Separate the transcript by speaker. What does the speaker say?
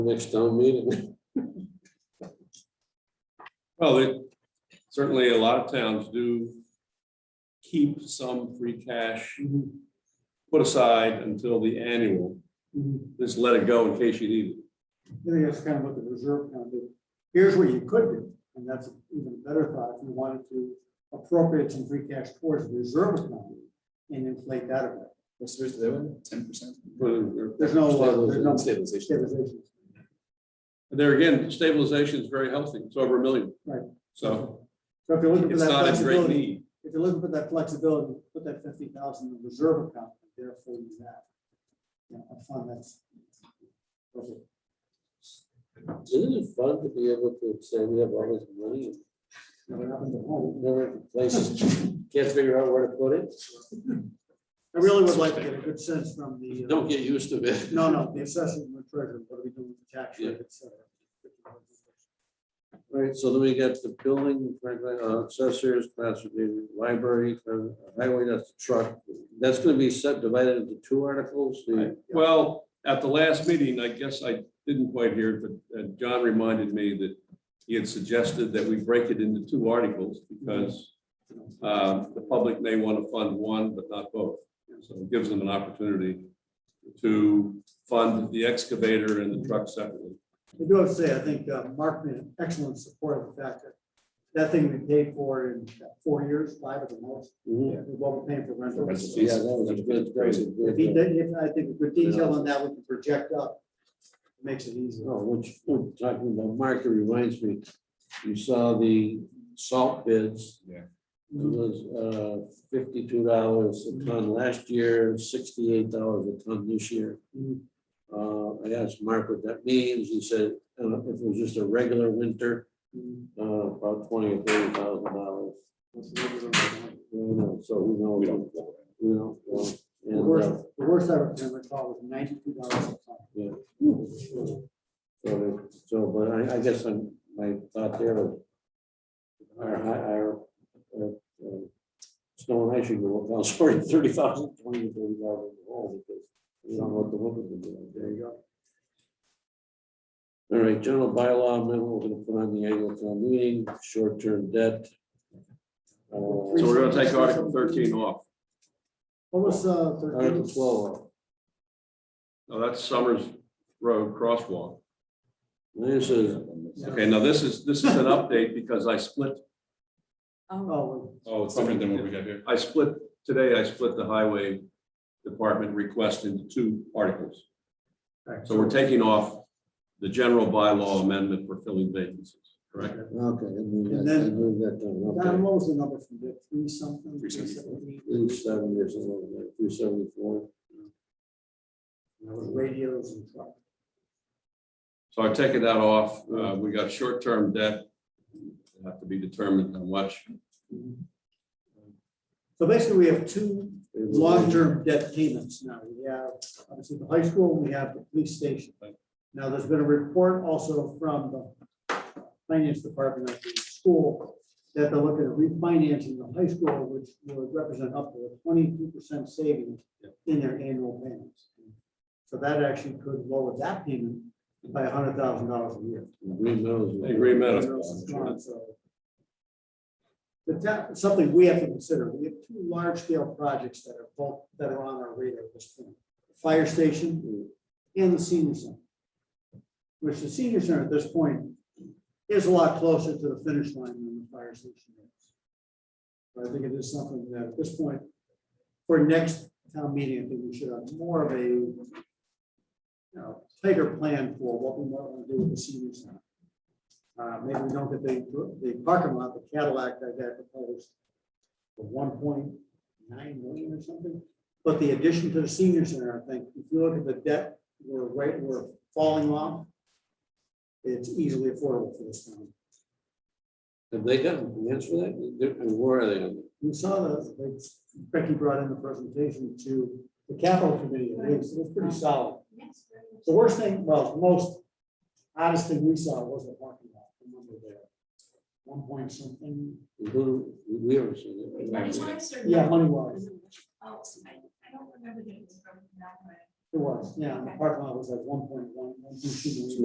Speaker 1: next town meeting.
Speaker 2: Well, it, certainly a lot of towns do keep some free cash put aside until the annual,
Speaker 3: Mhm.
Speaker 2: just let it go in case you need it.
Speaker 3: I think that's kind of what the reserve fund did. Here's what you could do, and that's even a better thought, if you wanted to appropriate some free cash towards the reserve account and inflate that a bit.
Speaker 4: What's the doing? Ten percent?
Speaker 2: But uh,
Speaker 3: There's no, uh, there's no
Speaker 4: Stabilization.
Speaker 3: stabilization.
Speaker 2: there again, stabilization is very healthy, it's over a million.
Speaker 3: Right.
Speaker 2: So
Speaker 3: So if you're looking for
Speaker 2: it's
Speaker 3: that
Speaker 2: not a great
Speaker 3: flexibility,
Speaker 2: need.
Speaker 3: if you're looking for that flexibility, put that fifty thousand in the reserve account, and therefore you have, you know, a fund that's. perfect.
Speaker 1: Isn't it fun to be able to say we have all this money and
Speaker 3: Never happened at home.
Speaker 1: never places, can't figure out where to put it?
Speaker 3: I really would like to get a good sense from the. uh,
Speaker 1: Don't get used to it.
Speaker 3: No, no, the assessment and the treasurer, what are we doing with the tax rate, et cetera.
Speaker 1: Right, so then we got the building, uh, accessories, classroom, library, uh, highway, that's the truck. That's gonna be subdivided into two articles, the,
Speaker 2: Well, at the last meeting, I guess I didn't quite hear, it, but uh, John reminded me that he had suggested that we break it into two articles because Um, The public may want to fund one, but not both. So it gives them an opportunity to fund the excavator and the truck separately.
Speaker 3: I do have to say, I think uh, Mark made an excellent support of the fact that that thing we paid for in four years, five at the most,
Speaker 1: Mhm.
Speaker 3: was what we're paying for rental.
Speaker 1: yeah, that was a good, that was a good,
Speaker 3: If he, did- if I think with detail on that, we can project up, it makes it easier.
Speaker 1: Oh, which, oh, talking about market reminds me, you saw the salt bids.
Speaker 4: Yeah.
Speaker 1: It was uh, fifty-two dollars a ton last year, sixty-eight dollars a ton this year.
Speaker 3: Mhm.
Speaker 1: Uh, I asked Mark what that means. He said, uh, if it was just a regular winter, uh, about twenty or thirty thousand dollars. So who knows? We don't. We don't. know.
Speaker 3: The
Speaker 1: And, uh,
Speaker 3: worst, the worst I can recall was ninety-two dollars a ton.
Speaker 1: So, the- so, but I, I guess I'm, my thought there was. Our, hi- our, uh, uh, snow and ice should go up, now, sorry, thirty thousand, twenty, thirty thousand, all because. You don't know what the winter will do, there you go. All right, general bylaw, amendment we're gonna put on the annual town meeting, short-term debt. Uh,
Speaker 2: So we're going to take Article 13 off.
Speaker 3: What was, uh,
Speaker 1: Article
Speaker 3: thirteen?
Speaker 1: twelve,
Speaker 2: Now, that's Summers Road crosswalk.
Speaker 1: this is,
Speaker 2: Okay, now this is, this is an update because I split,
Speaker 3: Oh,
Speaker 4: Oh, it's different than what we got here.
Speaker 2: I split, today I split the highway department request into two articles.
Speaker 3: Right.
Speaker 2: So we're taking off the general bylaw amendment for filling vacancies, correct?
Speaker 1: okay, I moved
Speaker 3: And
Speaker 1: that, I
Speaker 3: then-
Speaker 1: moved that down, okay.
Speaker 3: Don, what was the number from Dick? Three something?
Speaker 4: Three seventy-four.
Speaker 3: seventy?
Speaker 1: Three seventy or something like that, three seventy-four.
Speaker 3: That was radios and truck.
Speaker 2: So I've taken that off. Uh, We got short-term debt. It'll Have to be determined how much.
Speaker 3: So basically, we have two long-term debt payments now. We have, obviously, the high school, we have the police station. Now, there's been a report also from the finance department at the school that they're looking at refinancing the high school, which would represent up to a twenty-two percent savings in their annual payments. So that actually could lower that payment by hundred thousand dollars a year.
Speaker 1: Green Meadows.
Speaker 2: Hey, Green Meadows.
Speaker 3: But that, something we have to consider, we have two large scale projects that are both, that are on our radar at this point. The Fire station and the senior center. Which the senior center at this point is a lot closer to the finish line than the fire station is. But I think it is something that at this point, for next town meeting, I think we should have more of a, you know, tighter plan for what we want to do with the senior center. Uh, maybe we don't get the, the parking lot, the Cadillac that got proposed for one point nine million or something. But the addition to the senior center, I think, if you look at the debt, we're right, we're falling off. It's easily affordable for this town.
Speaker 1: Have they gotten an answer for that? They're- Where are they? on
Speaker 3: We saw that, like, Becky brought in the presentation to the capital committee, and it was, it was pretty solid.
Speaker 5: Yes. very much.
Speaker 3: The worst thing, well, the most oddest thing we saw was the parking lot, the number there. One point something,
Speaker 1: it? Who- We haven't seen
Speaker 5: Wait, Money
Speaker 1: it.
Speaker 5: wise or?
Speaker 3: yeah,
Speaker 5: not?
Speaker 3: money wise.
Speaker 5: Oh, so I, I don't remember that it was broken down, but.
Speaker 3: It was, yeah, and the
Speaker 5: Okay.
Speaker 3: parking lot was like one point one, one point two million.